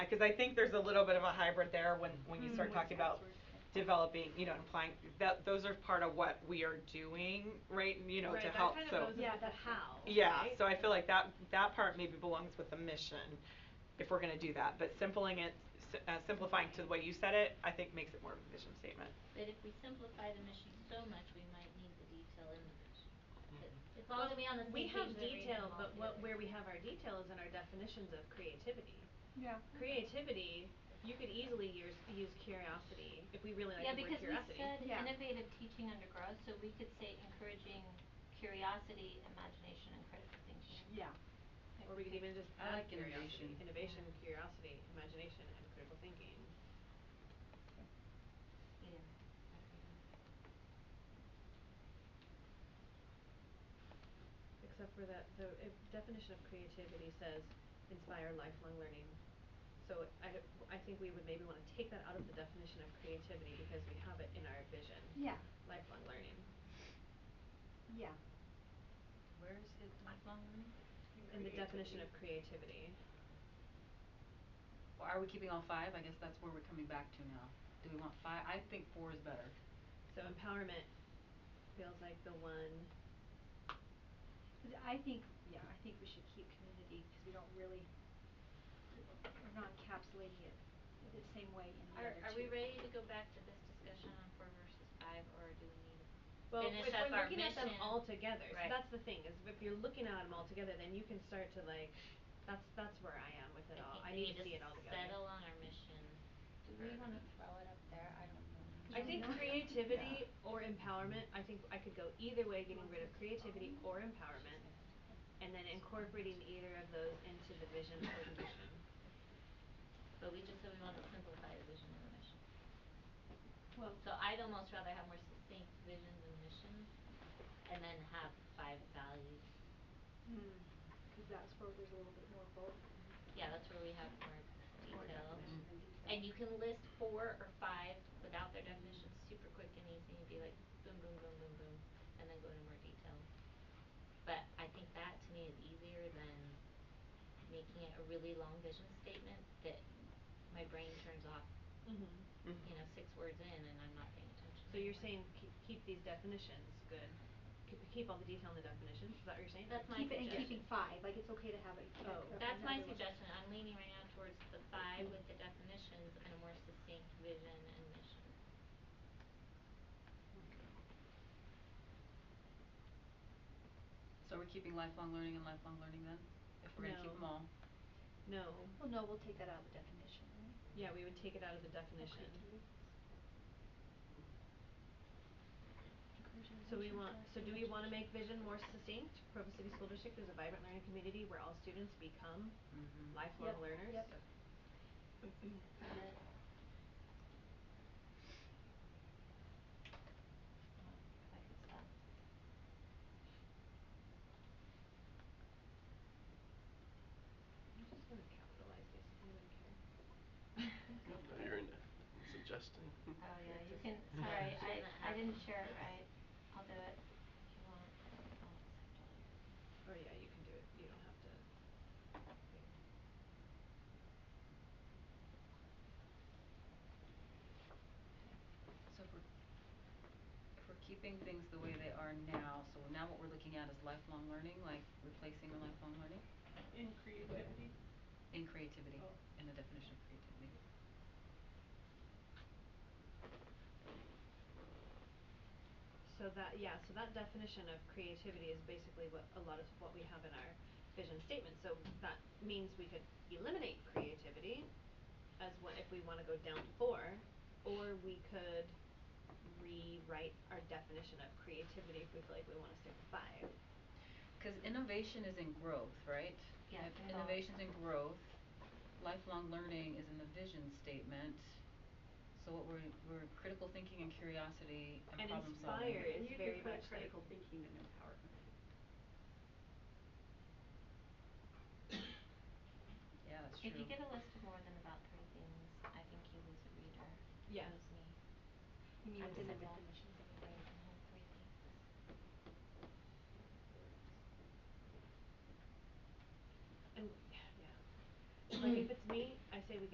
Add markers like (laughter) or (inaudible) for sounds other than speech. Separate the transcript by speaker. Speaker 1: cause I think there's a little bit of a hybrid there when, when you
Speaker 2: Mm.
Speaker 1: start talking about developing, you know, implying, that, those are part of what we are doing, right, you know, to help, so.
Speaker 2: Yeah, the
Speaker 3: how,
Speaker 1: Yeah, so I feel like that, that part maybe belongs with the mission, if we're gonna do that, but simpling it, s- uh, simplifying to the way you said it, I think makes it more of a vision statement.
Speaker 3: But if we simplify the mission so much, we might need the detail in the mission. But
Speaker 4: Mm-hmm.
Speaker 3: as long as we on the same
Speaker 5: We
Speaker 3: page.
Speaker 5: have
Speaker 3: that everything
Speaker 5: detail,
Speaker 3: falls
Speaker 5: but what,
Speaker 3: together.
Speaker 5: where we have our detail is in our definitions of creativity.
Speaker 2: Yeah.
Speaker 5: Creativity, you could easily use, use curiosity, if we really
Speaker 3: Yeah,
Speaker 5: like the word
Speaker 3: because we
Speaker 5: curiosity.
Speaker 3: said
Speaker 2: Yeah.
Speaker 3: innovative teaching undergrowth, so we could say encouraging curiosity, imagination, and critical thinking.
Speaker 2: Yeah.
Speaker 5: Or we could even just
Speaker 4: I
Speaker 5: add
Speaker 4: like
Speaker 5: curiosity,
Speaker 4: innovation.
Speaker 5: innovation, curiosity, imagination, and critical thinking.
Speaker 3: Yeah.
Speaker 5: Except for that, the uh, definition of creativity says inspire lifelong learning. So I d- I think we would maybe wanna take that out of the definition of creativity because we have it in our vision,
Speaker 2: Yeah,
Speaker 5: lifelong learning.
Speaker 2: yeah.
Speaker 4: Where is it?
Speaker 3: Lifelong learning.
Speaker 5: In the definition of creativity.
Speaker 4: Well, are we keeping all five? I guess that's where we're coming back to now. Do we want five? I think four is better.
Speaker 5: So empowerment feels like the one,
Speaker 6: But I think, yeah, I think we should keep community because we don't really, we're not encapsulating it the same way in the
Speaker 3: Are
Speaker 6: other two.
Speaker 3: are we ready to go back to this discussion on four versus five, or do we need to
Speaker 5: well, if
Speaker 3: finish
Speaker 5: if
Speaker 3: up
Speaker 5: we're
Speaker 3: our
Speaker 5: looking at them
Speaker 3: mission?
Speaker 5: all together, so
Speaker 3: Right.
Speaker 5: that's the thing, is if you're looking at them all together, then you can start to like, that's that's where I am with it all, I need to see it all together.
Speaker 3: think we need to settle on our mission.
Speaker 4: Do we wanna
Speaker 3: throw it up there? I don't know.
Speaker 5: I think creativity or empowerment, I think I could go either way, getting rid of creativity or empowerment, and then incorporating either of those into the vision or the mission.
Speaker 3: But we just said we wanted to simplify the vision and the mission.
Speaker 6: Well,
Speaker 3: So I'd almost rather have more succinct visions and missions and then have five values.
Speaker 6: mm, cause that's where there's a little bit more bulk.
Speaker 3: Yeah, that's where we have more
Speaker 6: More
Speaker 3: detail.
Speaker 6: definition and detail.
Speaker 3: And you can list four or five without their definitions, super quick and easy, and be like boom, boom, boom, boom, boom, and then go into more detail. But I think that to me is easier than making it a really long vision statement that my brain turns off,
Speaker 5: Mm-hmm.
Speaker 3: you know, six words in and I'm not paying attention.
Speaker 5: So you're
Speaker 3: anymore.
Speaker 5: saying keep keep these definitions good, keep keep all the detail in the definitions, is that what you're saying?
Speaker 3: That's my
Speaker 6: Keep it and
Speaker 3: suggestion.
Speaker 6: keeping five, like it's okay to have it. like,
Speaker 5: Oh.
Speaker 6: uh,
Speaker 3: That's my
Speaker 6: another one.
Speaker 3: suggestion, I'm leaning right now towards the five with the definitions and a more succinct vision and mission.
Speaker 4: So we're keeping lifelong learning and lifelong learning then? If we're gonna keep
Speaker 5: No.
Speaker 4: them all?
Speaker 5: No,
Speaker 6: Well, no, we'll take that out of the definition, right?
Speaker 5: yeah, we would take it out of the definition. So we want, so do we wanna make vision more succinct? Provo City School District is a vibrant learning community where all students become
Speaker 4: Mhm.
Speaker 5: lifelong
Speaker 6: Yep,
Speaker 5: learners.
Speaker 6: yep.
Speaker 5: (clears throat)
Speaker 3: I could stop.
Speaker 5: I'm just gonna capitalize this, I don't care.
Speaker 7: You're
Speaker 3: (laughs)
Speaker 7: in suggesting.
Speaker 3: Oh, yeah, you
Speaker 7: (laughs)
Speaker 3: can, sorry, I, I didn't share it right. I'll do it if you want. I'll accept all
Speaker 5: Oh
Speaker 3: your-
Speaker 5: yeah, you can do it, you don't have to.
Speaker 4: So if we're, if we're keeping things the way they are now, so now what we're looking at is lifelong learning, like replacing the lifelong learning?
Speaker 2: In creativity?
Speaker 4: In creativity,
Speaker 2: Oh.
Speaker 4: in the definition of creativity.
Speaker 5: So that, yeah, so that definition of creativity is basically what a lot of what we have in our vision statement, so that means we could eliminate creativity as what if we wanna go down to four, or we could rewrite our definition of creativity if we feel like we wanna stick to five.
Speaker 4: Cause innovation is in growth, right?
Speaker 3: Yeah,
Speaker 4: If
Speaker 3: and all-
Speaker 4: innovation's in growth, lifelong learning is in the vision statement. So what we're, we're critical thinking and curiosity
Speaker 5: And
Speaker 4: and problem solving.
Speaker 5: inspire is very
Speaker 6: put
Speaker 5: much like
Speaker 6: critical
Speaker 5: thinking and empowerment.
Speaker 4: Yeah, that's true.
Speaker 3: If you get a list of more than about three things, I think you lose a reader.
Speaker 5: Yeah.
Speaker 3: Lose me.
Speaker 6: You mean
Speaker 3: I'm
Speaker 6: within the
Speaker 3: simple.
Speaker 6: definitions of the
Speaker 3: Right, I have three things.
Speaker 5: And, yeah. Like if it's me, I say we